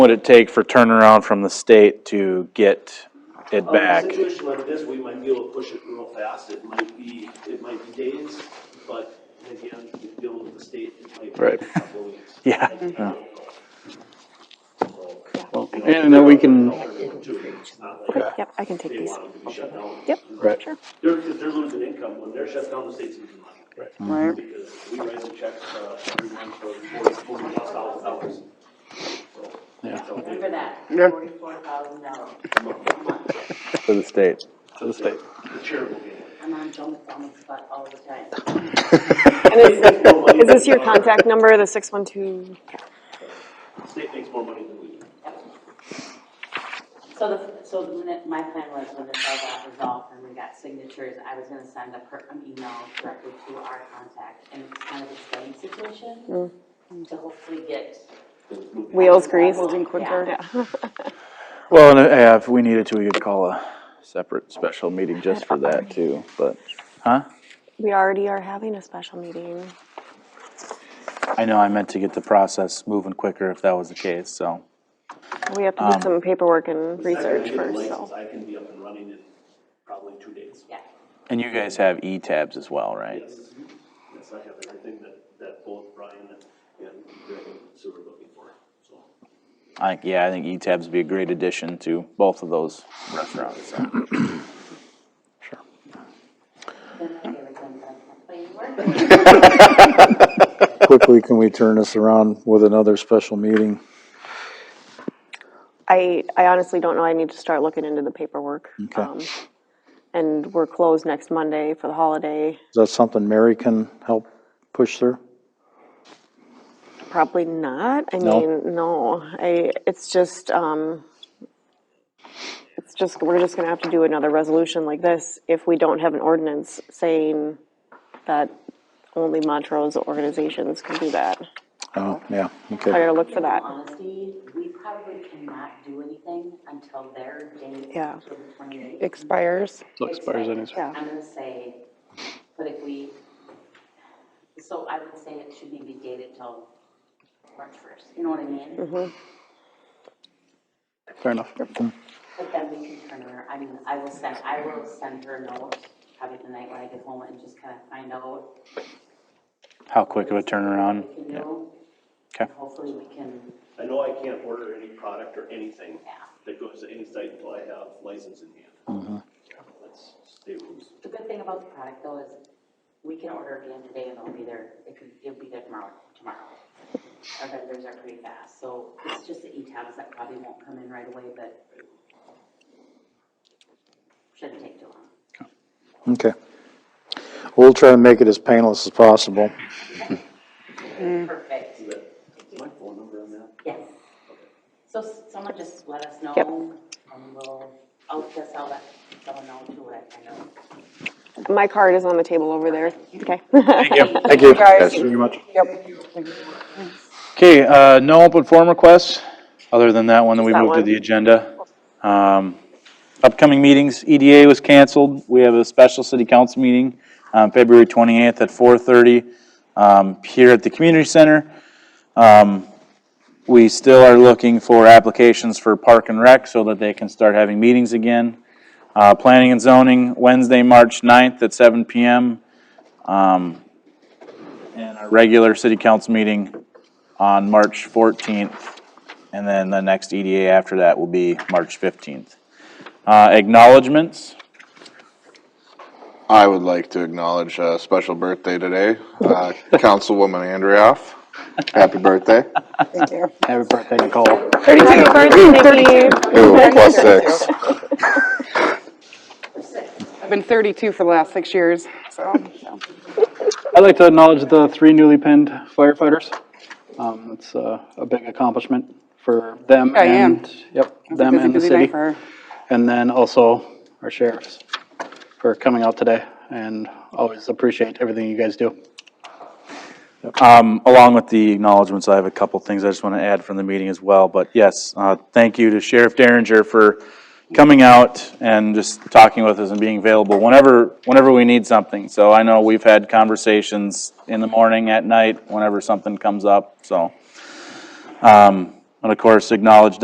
would it take for turnaround from the state to get it Um, back? In a situation like this, we might be able to push it real fast, it might be, it might be days, but again, if you deal with the state, it might be. Right. a couple weeks. Yeah. So, Well, you know, And then we can, alternative too, it's not like Okay. Yep, I can take They these. want them to be shut down. Yep. Right. Sure. They're, because they're losing income, when they're shut down, the state's losing money. Mm-hmm. Right. Because we write the check, uh, every month for forty, forty plus thousand dollars. So, Yeah. so they- Remember that, Yeah. forty-four thousand dollars. For the state. to the state. The charitable gain. I'm on Jones on the spot all the time. And is this, is this your contact number, the six one two? State makes more money than we do. So the, so the minute, my plan was when this all got resolved and we got signatures, I was gonna send a per, an email directly to our contact. And it's kind of a study Hmm. situation to hopefully get. Wheels greased. Moving quicker. Yeah. Well, and uh, if we needed to, we could call a separate special meeting just for that too, but, huh? We already are having a special meeting. I know I meant to get the process moving quicker if that was the case, so. We have to do some paperwork and Besides, when I research get the first, license, so. I can be up and running in probably two days. Yeah, And you guys have E-tabs as well, right? Yes, yes, I have everything that, that both Brian and, and Greg and Sue are looking for, so. I, yeah, I think E-tabs would be a great addition to both of those restaurants. so. Sure. then I gave it to him, but I'm like, "But you work." quickly can we turn this around with another special meeting? I, I honestly don't know. I need to start looking into the paperwork. Okay. Um, And we're closed next Monday for the holiday. Is that something Mary can help push through? Probably not. I No? mean, no, I, it's just, um, it's just, we're just gonna have to do another resolution like this if we don't have an ordinance saying that only Montrose organizations can do that. Oh, yeah, I okay. gotta look for that. In honesty, we probably cannot do anything until their date. Yeah. For the twenty-eighth. expires. So it expires anyways. Yeah. I'm gonna say, but if we, so I would say it should be dated till March first, you know what I mean? Fair enough. Mm, But then we can turn her, I mean, I will send, I will send her a note probably tonight when I get home and just kind of find out. How quick of a turnaround? what we can do. Okay. And Hopefully we can, I know I can't order any product or anything yeah, that goes to any site until I have license in hand. That's state rules. the good thing about the product though is we can order again today and it'll be there, it could, it'll be there tomorrow, tomorrow. Our vendors are pretty fast, so it's just the e-tabs that probably won't come in right away, but shouldn't take too long. Okay. We'll try to make it as painless as possible. Perfect. Is that- is my phone number on that? Yes. So s- someone just let us know, Yep. and we'll, I'll just, I'll let someone know too, what I know. My card is on the table over there. Okay. Thank you. Thank you. Guys. Thank you much. Okay, uh, no open forum requests, other than that one that we Just that moved to one. the agenda. Um, upcoming meetings, EDA was canceled. We have a special city council meeting, um, February twenty-eighth at four thirty, um, here at the community center. Um, we still are looking for applications for park and rec so that they can start having meetings again. Uh, planning and zoning, Wednesday, March 9th at seven PM. Um, and our regular city council meeting on March 14th, and then the next EDA after that will be March 15th. Uh, Acknowledgements, I would like to acknowledge a special birthday today, uh, Councilwoman Andrioff. Happy birthday. Thank you. Happy birthday, Nicole. Happy birthday, Nikki. Ooh, plus six. I've been 32 for the last six years, so. I'd like to acknowledge the three newly pinned firefighters. Um, it's uh, a big accomplishment for them I am. and, yep, It was a them busy, and the busy city. night for- And then also our sheriffs for coming out today and always appreciate everything you guys do. Um, along with the acknowledgements, I have a couple things I just want to add from the meeting as well, but yes, uh, thank you to Sheriff Derringer for coming out and just talking with us and being available whenever, whenever we need something. So I know we've had conversations in the morning, at night, whenever something comes up, so. Um, And of course, acknowledge